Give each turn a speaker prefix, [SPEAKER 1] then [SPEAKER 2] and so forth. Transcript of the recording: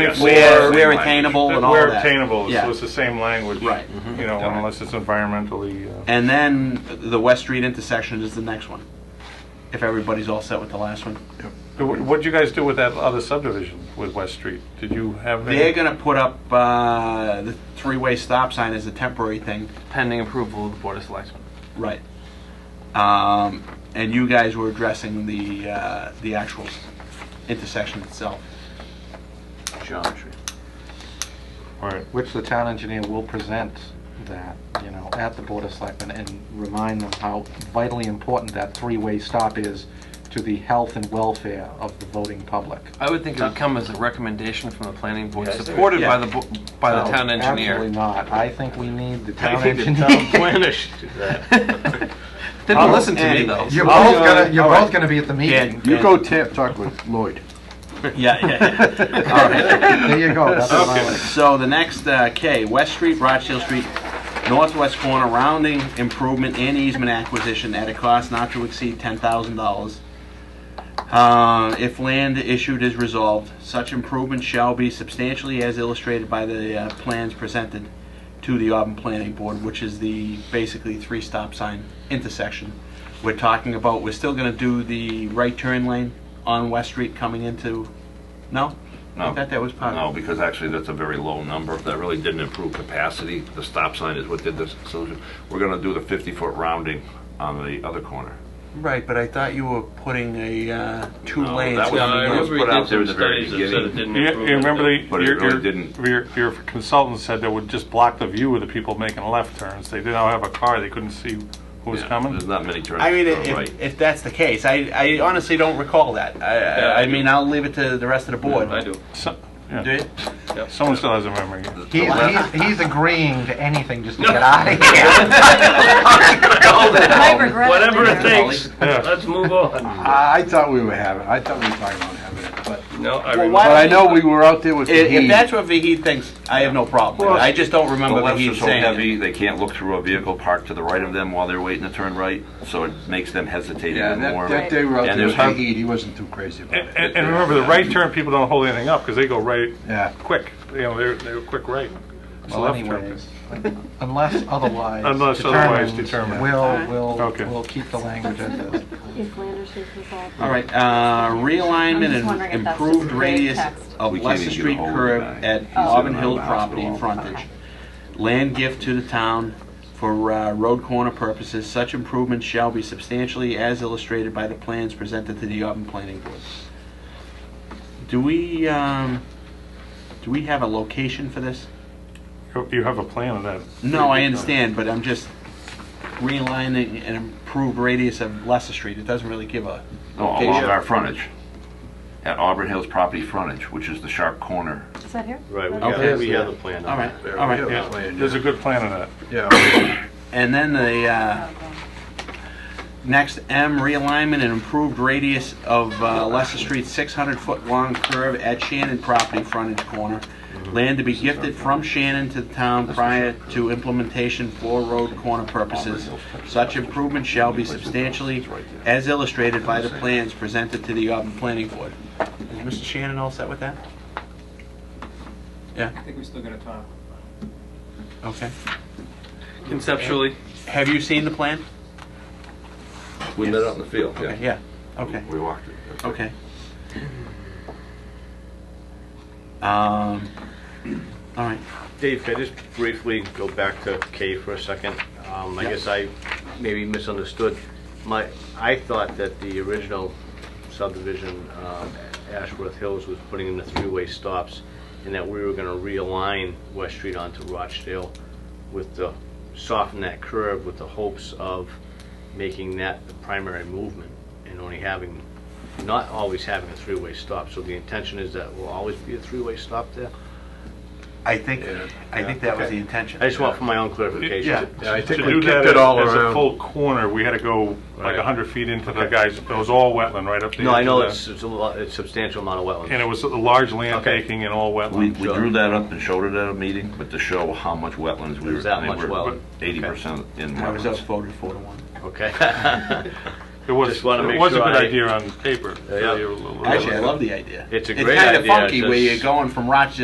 [SPEAKER 1] Yes.
[SPEAKER 2] Where,
[SPEAKER 1] Or-
[SPEAKER 2] where attainable and all
[SPEAKER 1] Where
[SPEAKER 2] that.
[SPEAKER 1] obtainable,
[SPEAKER 2] Yeah.
[SPEAKER 1] so it's the same language.
[SPEAKER 2] Right.
[SPEAKER 1] You know,
[SPEAKER 2] Alright.
[SPEAKER 1] unless it's environmentally, uh,
[SPEAKER 2] And then the West Street intersection is the next one. If everybody's all set with the last one.
[SPEAKER 1] Wh- what'd you guys do with that other subdivision with West Street? Did you have? any-
[SPEAKER 2] They're gonna put up, uh, the three-way stop sign as a temporary thing.
[SPEAKER 3] pending approval of the Board of Selectmen.
[SPEAKER 2] Right. Um, and you guys were addressing the, uh, the actual s- intersection itself.
[SPEAKER 3] Geometry.
[SPEAKER 1] Alright.
[SPEAKER 4] which the town engineer will present that, you know, at the Board of Selectmen and remind them how vitally important that three-way stop is to the health and welfare of the voting public.
[SPEAKER 3] I would think it would come as a recommendation from the planning board,
[SPEAKER 5] Yeah, I think-
[SPEAKER 3] supported by the,
[SPEAKER 2] Yeah.
[SPEAKER 3] bo- by the
[SPEAKER 4] No,
[SPEAKER 3] town engineer.
[SPEAKER 4] Absolutely not. I think we need the
[SPEAKER 5] I
[SPEAKER 4] town
[SPEAKER 5] think the
[SPEAKER 4] engineer.
[SPEAKER 5] town planner should do that.
[SPEAKER 3] They don't listen to me, though.
[SPEAKER 2] Anyways.
[SPEAKER 4] You're
[SPEAKER 2] Oh,
[SPEAKER 4] both gonna, you're
[SPEAKER 2] all right.
[SPEAKER 4] both gonna be at the meeting.
[SPEAKER 2] Dan, Dan.
[SPEAKER 4] tip, talk with Lloyd.
[SPEAKER 2] Yeah, yeah, yeah. All right.
[SPEAKER 4] There you go, that's what I like.
[SPEAKER 2] So the next, uh, K, West Street, Rochdale Street, northwest corner, rounding improvement and easement acquisition at a cost not to exceed ten thousand dollars. Uh, if land issued is resolved, such improvement shall be substantially as illustrated by the, uh, plans presented to the Auburn Planning Board, which is the basically three stop sign intersection. We're talking about, we're still gonna do the right turn lane on West Street coming into, no? I
[SPEAKER 5] No.
[SPEAKER 2] thought that was part of it.
[SPEAKER 5] No, because actually, that's a very low number. That really didn't improve capacity. The stop sign is what did this solution. We're gonna do the 50-foot rounding on the other corner.
[SPEAKER 2] Right, but I thought you were putting a uh, two
[SPEAKER 5] No,
[SPEAKER 2] lanes.
[SPEAKER 5] that was-
[SPEAKER 2] coming
[SPEAKER 5] I
[SPEAKER 2] in.
[SPEAKER 5] remember we did some studies that said it
[SPEAKER 1] You you remember the,
[SPEAKER 5] But it
[SPEAKER 1] your-
[SPEAKER 5] really
[SPEAKER 1] your-
[SPEAKER 5] didn't.
[SPEAKER 1] your, your consultant said that would just block the view of the people making left turns. They didn't have a car, they couldn't see who was
[SPEAKER 5] Yeah,
[SPEAKER 1] coming.
[SPEAKER 5] There's not many turns
[SPEAKER 2] I mean,
[SPEAKER 5] to the
[SPEAKER 2] if,
[SPEAKER 5] right.
[SPEAKER 2] if that's the case, I, I honestly don't recall that. I,
[SPEAKER 6] Yeah,
[SPEAKER 2] I,
[SPEAKER 6] I
[SPEAKER 2] I
[SPEAKER 6] do.
[SPEAKER 2] mean, I'll leave it to the rest of the board.
[SPEAKER 6] I do.
[SPEAKER 1] So-
[SPEAKER 2] Do
[SPEAKER 1] yeah.
[SPEAKER 2] you?
[SPEAKER 1] Someone still has a memory.
[SPEAKER 4] He's, he's, he's agreeing to anything just to get out of here.
[SPEAKER 7] I regret it
[SPEAKER 6] Whatever it
[SPEAKER 7] later.
[SPEAKER 6] takes,
[SPEAKER 1] Yeah.
[SPEAKER 6] let's move on.
[SPEAKER 8] I I thought we were having, I thought we were talking about having it, but,
[SPEAKER 6] No, I
[SPEAKER 2] Well,
[SPEAKER 6] remember.
[SPEAKER 8] but I know we were out there with
[SPEAKER 2] I- If,
[SPEAKER 8] the
[SPEAKER 2] that's
[SPEAKER 8] heat.
[SPEAKER 2] what Vahid thinks, I have no problem with it. I just don't
[SPEAKER 5] The
[SPEAKER 2] remember
[SPEAKER 5] lefts are
[SPEAKER 2] Vahid
[SPEAKER 5] so
[SPEAKER 2] saying it.
[SPEAKER 5] heavy, they can't look through a vehicle parked to the right of them while they're waiting to turn right, so it makes them hesitate
[SPEAKER 8] Yeah,
[SPEAKER 5] even
[SPEAKER 8] that,
[SPEAKER 5] more.
[SPEAKER 8] that day we were out
[SPEAKER 5] And
[SPEAKER 8] there
[SPEAKER 5] there's
[SPEAKER 8] with the
[SPEAKER 5] hard-
[SPEAKER 8] heat, he wasn't too crazy about
[SPEAKER 1] And,
[SPEAKER 8] it.
[SPEAKER 1] and- and remember, the right turn, people don't hold anything up, because they go right,
[SPEAKER 8] Yeah.
[SPEAKER 1] quick, you know, they're, they're quick right. It's a
[SPEAKER 4] Well,
[SPEAKER 1] left turn.
[SPEAKER 4] anyways, unless otherwise
[SPEAKER 1] Unless otherwise
[SPEAKER 4] determined,
[SPEAKER 1] determined.
[SPEAKER 4] we'll, we'll,
[SPEAKER 1] Okay.
[SPEAKER 4] we'll keep the language as is.
[SPEAKER 7] If Flanders is resolved.
[SPEAKER 2] All right, uh,
[SPEAKER 7] I'm
[SPEAKER 2] realignment
[SPEAKER 7] just
[SPEAKER 2] and
[SPEAKER 7] wondering if that's
[SPEAKER 2] improved
[SPEAKER 7] just vague
[SPEAKER 2] radius
[SPEAKER 7] text. Oh.
[SPEAKER 2] of
[SPEAKER 5] We can't
[SPEAKER 2] Leicester
[SPEAKER 5] even get a
[SPEAKER 2] Street
[SPEAKER 5] hold of
[SPEAKER 2] curb
[SPEAKER 5] the guy.
[SPEAKER 2] at
[SPEAKER 5] He's
[SPEAKER 2] Auburn
[SPEAKER 5] in
[SPEAKER 2] Hill
[SPEAKER 5] the
[SPEAKER 2] property
[SPEAKER 5] hospital.
[SPEAKER 2] frontage. Land gift to the town for uh, road corner purposes, such improvements shall be substantially as illustrated by the plans presented to the Auburn Planning Board. Do we, um, do we have a location for this?
[SPEAKER 1] You- You have a plan of that.
[SPEAKER 2] No, I understand, but I'm just realigning an improved radius of Leicester Street. It doesn't really give a
[SPEAKER 5] No, along
[SPEAKER 2] location.
[SPEAKER 5] our frontage, at Auburn Hills property frontage, which is the sharp corner.
[SPEAKER 7] Is that here?
[SPEAKER 6] Right, we
[SPEAKER 2] Okay.
[SPEAKER 6] got, we have the plan.
[SPEAKER 2] All right, all right.
[SPEAKER 1] Yeah, There's a good plan of that.
[SPEAKER 8] Yeah,
[SPEAKER 2] And then the, uh,
[SPEAKER 7] Okay.
[SPEAKER 2] Next, M, realignment and improved radius of uh, Leicester Street, 600-foot-long curve at Shannon property frontage corner. Land to be gifted from Shannon to the town prior to implementation for road corner purposes. Such improvement shall be substantially as illustrated by the plans presented to the Auburn Planning Board. Is Mr. Shannon all set with that? Yeah,
[SPEAKER 9] I think we're still gonna talk.
[SPEAKER 2] okay.
[SPEAKER 3] Conceptually,
[SPEAKER 2] Have you seen the plan?
[SPEAKER 5] We met out in the field,
[SPEAKER 2] Okay, Yeah, okay.
[SPEAKER 5] We walked it. That's it.
[SPEAKER 2] Okay. Um, all right.
[SPEAKER 6] Dave, can I just briefly go back to K for a second? Um, I guess I maybe misunderstood. My, I thought that the original subdivision, um, Ashworth Hills, was putting in the three-way stops, and that we were gonna realign West Street onto Rochdale with the, soften that curve with the hopes of making that the primary movement and only having, not always having a three-way stop. So the intention is that will always be a three-way stop there?
[SPEAKER 2] I think, I think that was the intention.
[SPEAKER 6] I just want for my own clarification.
[SPEAKER 8] Yeah, I
[SPEAKER 1] To
[SPEAKER 8] think we
[SPEAKER 1] do that
[SPEAKER 8] kicked it all
[SPEAKER 1] as as a
[SPEAKER 8] around.
[SPEAKER 1] full corner, we had to go like
[SPEAKER 6] Right.
[SPEAKER 1] 100 feet into the guys, it was all wetland right up there.
[SPEAKER 6] No, I know it's it's a lot, it's substantial amount of
[SPEAKER 1] And
[SPEAKER 6] wetlands.
[SPEAKER 1] it was a large land
[SPEAKER 6] Okay.
[SPEAKER 1] taking and all
[SPEAKER 5] We,
[SPEAKER 1] wetland.
[SPEAKER 5] we drew that up and showed it at a meeting, but to show how much wetlands we were.
[SPEAKER 6] There's that much wetland.
[SPEAKER 5] Eighty percent in
[SPEAKER 2] I was
[SPEAKER 5] wetlands.
[SPEAKER 2] outvoted four to one.
[SPEAKER 6] Okay.
[SPEAKER 1] It was,
[SPEAKER 6] Just wanna
[SPEAKER 1] it
[SPEAKER 6] make
[SPEAKER 1] was a
[SPEAKER 6] sure
[SPEAKER 1] good
[SPEAKER 6] I-
[SPEAKER 1] idea on paper.
[SPEAKER 6] Yeah.
[SPEAKER 1] You're a little-
[SPEAKER 2] Actually, I love the idea.
[SPEAKER 6] It's a
[SPEAKER 2] It's
[SPEAKER 6] great
[SPEAKER 2] kinda
[SPEAKER 6] idea,
[SPEAKER 2] funky where
[SPEAKER 6] just-
[SPEAKER 2] you're going from Rochester